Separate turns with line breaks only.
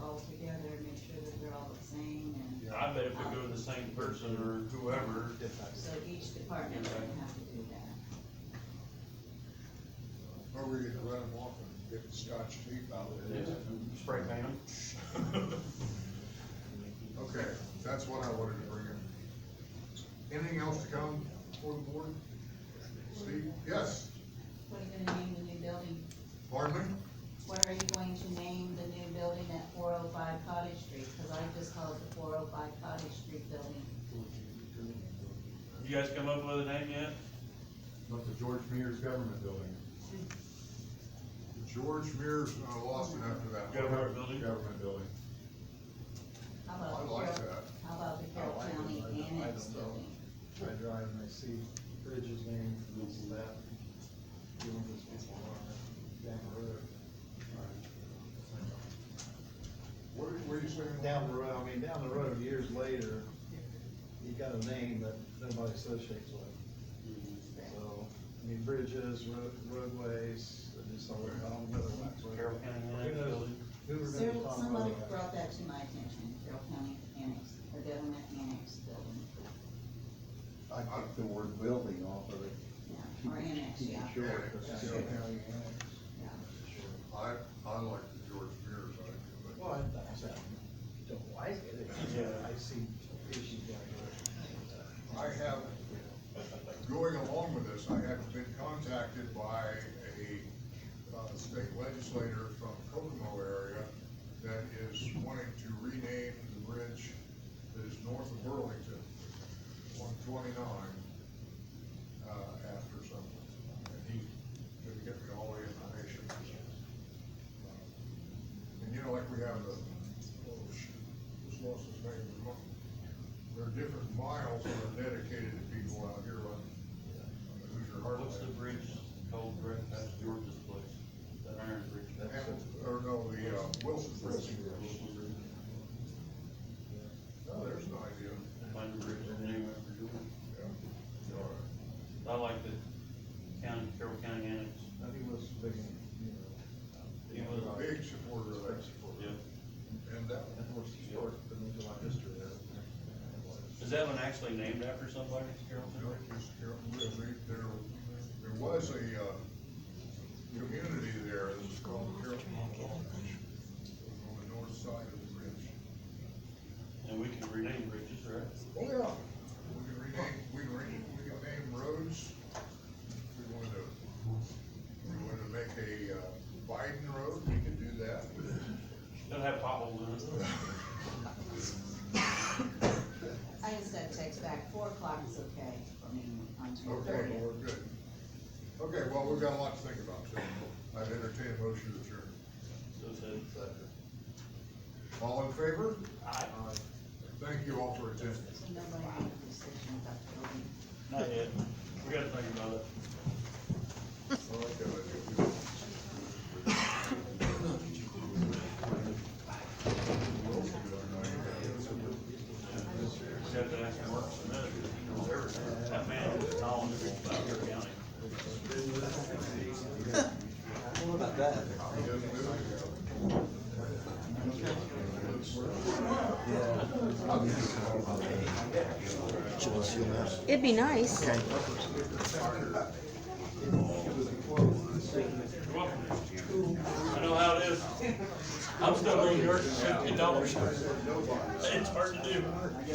all together, make sure that they're all the same, and
I bet if we go to the same person or whoever,
so each department would have to do that.
Or we could run them off and get the scotch tape out of there.
spray paint them.
Okay, that's what I wanted to bring in. Anything else to come before the board? Steve, yes,
What are you gonna name the new building?
pardon me?
What are you going to name the new building at four oh five Cottage Street? Cause I just called the four oh five Cottage Street building.
You guys come up with a name yet?
That's the George Mears Government Building.
George Mears, I lost it after that. one.
Government building?
Government Building.
How
I
about the
like
Carroll-
that.
How about the Carroll
I like it.
County
I don't- I
Annex
don't know.
building?
I drive and I see bridges named for this and that. You know, those people are Down the road.
What, what are you saying?
Down the road, I mean, down the road, years later, you got a name that nobody associates with. So, I mean, bridges, road, roadways, I just don't, I don't know that.
Carroll County
Who
Annex
knows?
building?
Who
Sir,
remembers Tom
somebody
Rowe?
brought that to my attention, Carroll County Annex, or Government Annex building,
I took the word building off of it.
yeah, or annex,
Keep it
yeah,
short.
Yeah,
Yeah.
Carroll County, yeah.
yeah.
I, I like the George Mears idea, but
Well, I, I said, I don't like it, it's,
Yeah.
I see issues like
I have, going along with this, I have been contacted by a, uh, state legislator from Kokomo area that is wanting to rename the bridge that is north of Burlington, one twenty-nine, uh, after someone. And he didn't get me all the information. And you know, like we have the, oh, shoot, just lost his name, there are different miles that are dedicated to people out here on on Hoosier
What's the
Heartland.
bridge called right past George's place? That iron bridge?
Hamilton, or no, the, uh, Wilson Bridge.
uh,
Oh, there's an idea,
Find a bridge and name it after George.
yeah. All
I
right.
like the county, Carroll County Annex.
that. I think most of the, you know. uh,
He was
I'm a Big supporter of that.
Yeah.
And that,
Of course, it's short, but there's a lot of history uh, there.
Is that one actually named after somebody, Carroll
you know,
County?
just Carroll, there- there, there was a, uh, community there that was called Carroll Bridge. On the north side of the bridge.
And we can rename bridges, right?
Oh, yeah. We can rename, we can rename, we can name roads. We want to, we want to make a uh, Biden road, we can do that.
It'll have potholes in it.
I just got a text back, four o'clock is okay for me on
Okay,
Tuesday.
well, we're good. Okay, well, we've got a lot to think about, so I've entertained a motion to adjourn.
So it said.
All in favor?
Aye.
Thank you all for attending.
So nobody made a decision about the building.
Not yet. We gotta think about it.
I like that idea.
Except that that's works for another, he knows everything. That man is knowledgeable about Carroll County.
about that?
He doesn't do it.
It'd be nice.
You're welcome. I know how it is. I'm still on yours, fifty dollars. It's hard to do.